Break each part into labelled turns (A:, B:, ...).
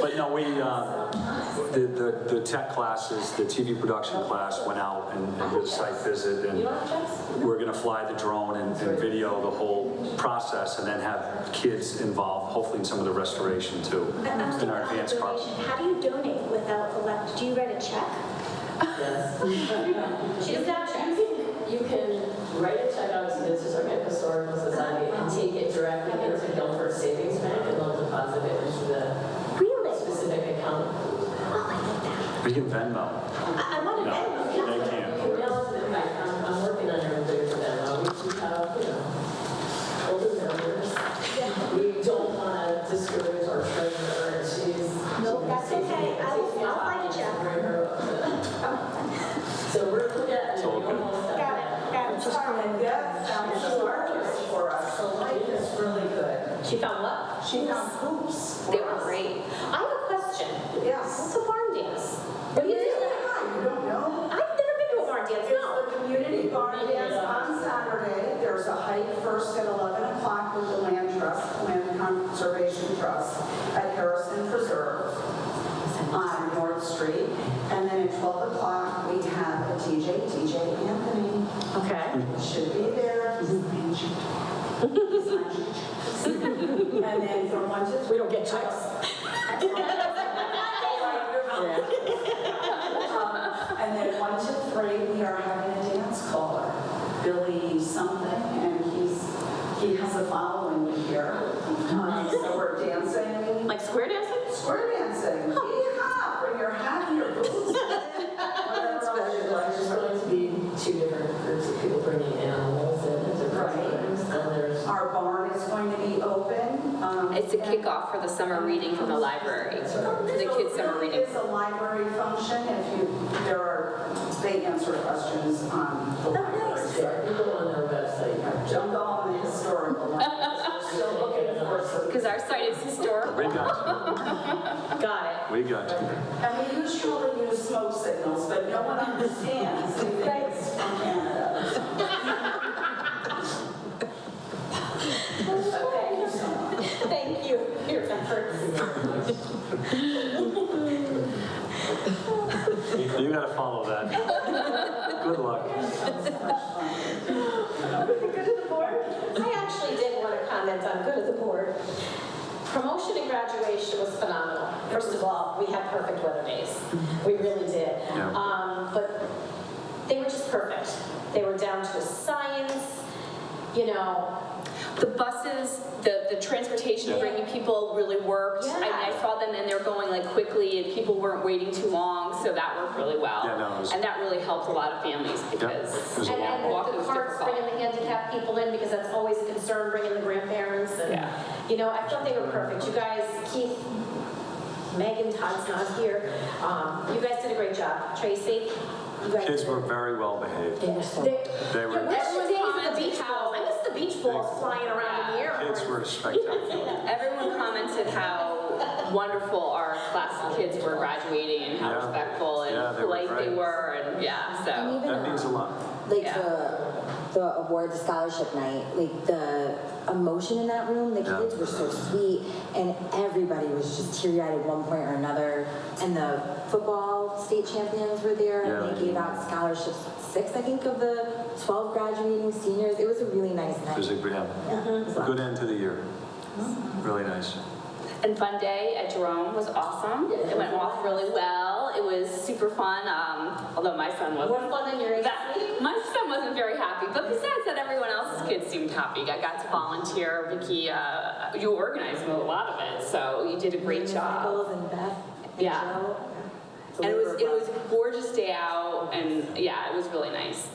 A: But no, we, uh, the, the, the tech classes, the TV production class went out and and did a site visit and we're gonna fly the drone and, and video the whole process and then have kids involved, hopefully in some of the restoration too, in our advanced cars.
B: How do you donate without elect, do you write a check?
C: She doesn't have checks. You can write a check out to the Historic Historical Society and take it directly into Guilford Savings Bank and they'll deposit it into the
D: Oh,
B: Really?
C: specific account.
B: Oh, I like that.
A: We can
B: I,
A: Venmo.
B: I want to
A: No,
B: Venmo.
A: they
C: You
A: can't.
C: can mail it to them. I'm, I'm working on everything for them. Uh, We do have, you know, older members. We don't want to discourage our treasurer and she's.
B: No, that's okay. I will- I'll find a check.
C: Bring her up. So we're looking at.
A: It's all good.
B: Got it, got it.
E: And Deb found two artists for us, so life is really good.
D: She found what?
E: She found hoops
D: They
E: for
D: were
E: us.
D: great. I have a question. What's
E: Yes.
D: a barn dance? What do you do?
E: Yeah, you don't know?
D: I've never been to a barn dance, no.
E: It's the community barn dance on Saturday. There's a hike first at 11 o'clock with the Land Trust, Land Conservation Trust at Harrison Preserve on North Street. And then at 12 o'clock, we have a DJ, DJ Anthony.
D: Okay.
E: should be there. And then from one to three.
D: We don't get checks.
E: Um, And then one to three, we are having a dance caller, Billy something, and he's, he has a following here. Um, So we're dancing,
D: Like square dancing?
E: square dancing, yee-haw, bring your hat and your boots. That's
C: There's just going to be two different groups of people bringing animals in and different
E: Right. Oh,
C: times, and there's.
E: Our barn is going to be open. um,
F: It's a kickoff for the summer reading from the library, the kids' summer reading.
E: It's a library function if you, there are, they answer questions on the
F: Oh,
E: library.
C: Yeah, you go on their website.
E: Jump on the historical one.
C: Still looking for.
F: Because our site is historical.
A: We got
D: Got
A: you. We got you.
E: And we usually use smoke signals, but no one understands. They think It's from Canada.
D: it.
C: Okay.
D: Thank you for your efforts.
A: You gotta follow that. Good luck.
D: Good of the board? I actually did want to comment on good of the board. Promotion and graduation was phenomenal. First of all, we had perfect weather days. We really did.
A: Yeah.
D: Um, But they were just perfect. They were down to a science, you know,
F: The buses, the, the transportation
D: Yeah.
F: bringing people really worked. I mean, I
D: Yeah.
F: saw them and they're going like quickly and people weren't waiting too long, so that worked really well.
A: Yeah, no, it was-
F: And that really helped a lot of families
A: it
F: because
A: was a
D: And
A: long
D: and
F: walk.
D: the
F: was
D: carts
F: difficult.
D: bringing the handicapped people in, because that's always a concern, bringing the grandparents and,
F: Yeah.
D: you know, I thought they were perfect. You guys, Keith, Megan, Todd's not here. Um, You guys did a great job. Tracy, you guys.
A: Kids
D: did-
A: were very well behaved.
D: They-
A: They were-
D: Yeah, where's the days
F: Everyone
D: of the
F: commented
D: beach
F: how-
D: balls? I miss the beach balls flying around in the air.
A: Kids were spectacular.
F: Everyone commented how wonderful our class of kids were graduating and how
A: Yeah.
F: respectful
A: Yeah,
F: and
A: they were
F: polite they
A: great.
F: were and yeah, so.
G: And even,
A: That means a
G: um,
A: lot.
G: Like
F: Yeah.
G: the the award scholarship night, like the emotion in that room, the
A: Yeah.
G: kids were so sweet, and everybody was just teary eyed at one point or another. And the football state champions were there,
A: Yeah.
G: and they gave out scholarships. Six, I think, of the twelve graduating seniors. It was a really nice night.
A: It was a yeah. good end to the year. Really nice.
F: And fun day at Jerome was awesome. It went off really well. It was super fun. Um, although my son
D: More
F: wasn't.
D: fun than your AC.
F: That, my son wasn't very happy, but besides that, everyone else's kids seemed happy. I got to volunteer. Vicky, uh, you organized a lot of it, so you did a great job.
G: Michaels and Beth and
F: Yeah.
G: Joe. So
F: And it
G: we
F: was
G: were
F: it was a gorgeous day out, and yeah, it was really nice.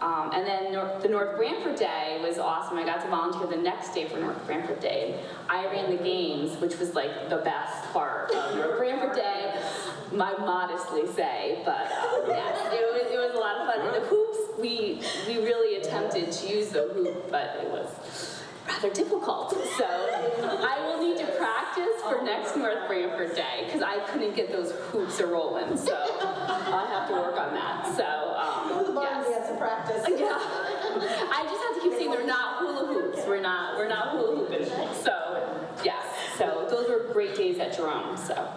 F: Um, and then Nor- the North Branford Day was awesome. I got to volunteer the next day for North Branford Day. I ran the games, which was like the best part of North Branford Day. My modestly say, but uh, yeah, it was, it was a lot of fun. And the hoops, we we really attempted to use the hoop, but it was rather difficult. So I will need to practice for next North Branford Day because I couldn't get those hoops a rolling. So I'll have to work on that. So um,
D: Barn
F: yes.
D: dance and practice.
F: Yeah. I just have to keep saying they're not hula hoops. We're not we're not hula hooping. So yes. So those were great days at Jerome. So.